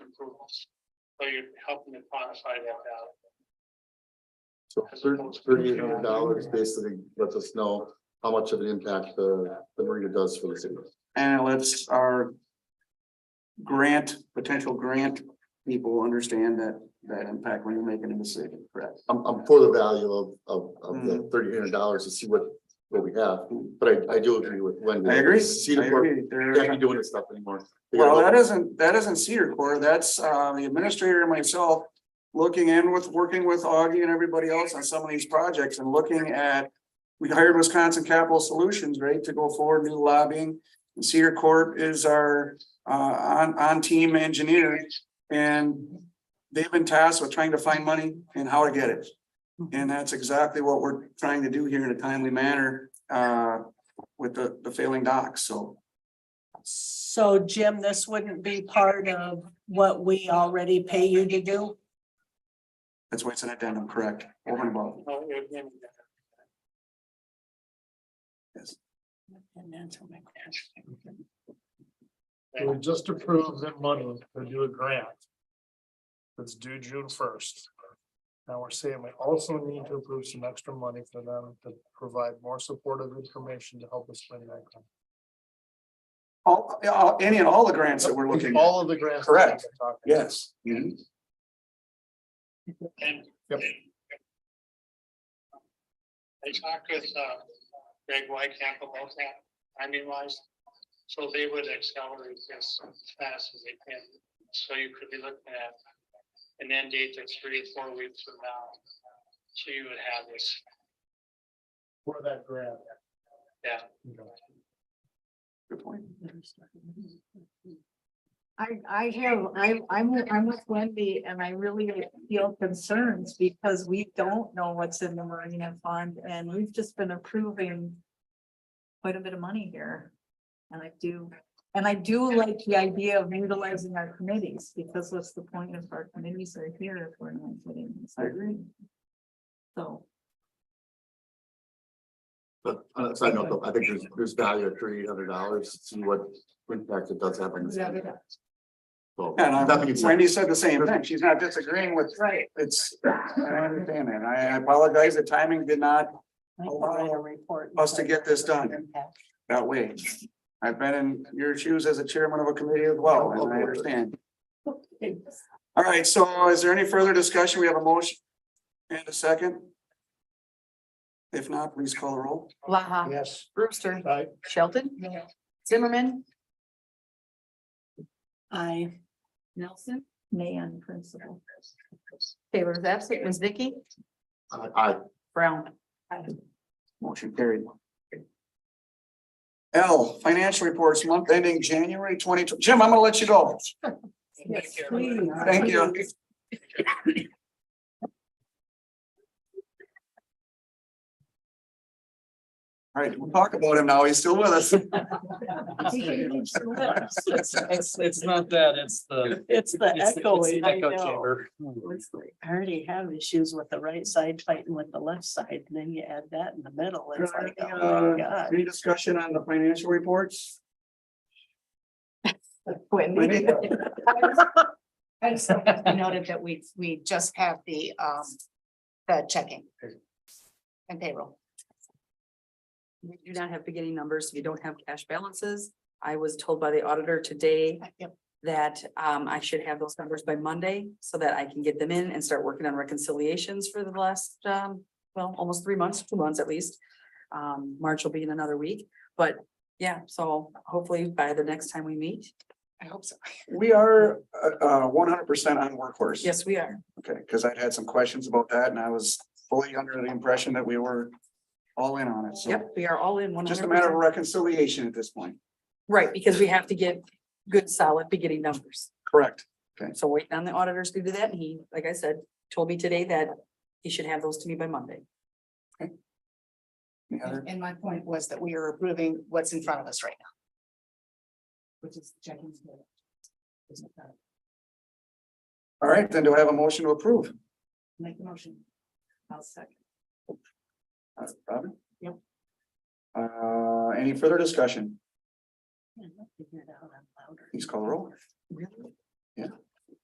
approvals. So you're helping to quantify that value. So thirty-eight hundred dollars basically lets us know how much of an impact the, the marina does for the city. And it lets our. Grant, potential grant people understand that, that impact when you're making a decision, correct? I'm, I'm for the value of, of, of the Mm. thirty-eight hundred dollars to see what, what we have, but I, I do agree with Wendy. I agree. I Cedar Fork agree. They're- can't be doing this stuff anymore. They Well, gotta- that isn't, that isn't Cedar Core, that's uh the administrator and myself. Looking in with, working with Augie and everybody else on some of these projects and looking at. We hired Wisconsin Capital Solutions, right, to go forward, do lobbying. And Cedar Corp is our uh on on team engineer. And they've been tasked with trying to find money and how to get it. And that's exactly what we're trying to do here in a timely manner uh with the the failing docs, so. So Jim, this wouldn't be part of what we already pay you to do? That's why it's an addendum, correct? Over and above. No, it would be in there. And that's what my question- It was just approved in money to do a grant. That's due June first. Now we're saying we also need to approve some extra money for them to provide more supportive information to help us win that. grant. All, yeah, all- any and all the grants that we're looking at. All of the grants. that Correct. we're talking about. Yes. And. Yep. I talked with, uh, Greg Whitecamp about that, timing wise, so they would accelerate this as fast as they can. So you could be looking at an end date that's three, four weeks from now. So you would have this, For that grant. yeah. Okay. Good point. I, I have, I, I'm, with- I'm with Wendy and I really feel concerns because we don't know what's in the marina fund and we've just been approving quite a bit of money here. And I do, and I do like the idea of utilizing our committees because what's the point if our committees are here if we're not getting this? I agree. So, But on a side note, though, I think there's, there's value at thirty-eight hundred dollars, see what impact it does have on this. Yeah. So, And definitely, uh, Wendy said the same thing. She's not disagreeing with, right, it's, I understand that. I I apologize. The timing did not I can write a report. Us to get this done. that way. I've been in your shoes as a chairman of a committee as well, and I understand. All right, so is there any further discussion? We have a motion and a second? If not, please call the roll. Blaha, Yes. Brewster, I, Shelton, Yeah. Zimmerman, I, Nelson, nay on principle. Taylor is absent, Ms. Vicky, I, I, Brown. Motion carried. L, financial reports month ending January twenty, Jim, I'm gonna let you go. Yes, Take care. please. Thank you. All right, we'll talk about him now. He's still with us. It's, it's not that, it's the. it's it's the the- it's echoing, the I echo know. chamber. I already have issues with the right side fighting with the left side, and then you add that in the middle, it's like, oh my Uh, god. Any discussion on the financial reports? Wendy. I just wanted to noted that we, we just have the, um, the checking. And payroll. We do not have beginning numbers, we don't have cash balances. I was told by the auditor today Yep. that um I should have those numbers by Monday so that I can get them in and start working on reconciliations for the last um, well, almost three months, two months at least. Um, March will be in another week, but yeah, so hopefully by the next time we meet, I hope so. We are uh, uh one hundred percent on workhorse. yes, we are. Okay, because I'd had some questions about that and I was fully under the impression that we were all in on it. So Yep, we are all in one hundred just a matter of percent. reconciliation at this point. Right, because we have to get good solid beginning numbers. Correct. So waiting on the auditors to do that, and he, like I said, told me today that he should have those to me by Monday. Any other? And my point was that we are approving what's in front of us right now. Which is checking. All right, then do I have a motion to approve? Make the motion. I'll second. Uh, Robin? Yep. Uh, any further discussion? Figure it out, I'm louder. Please call the roll. Really? Yeah.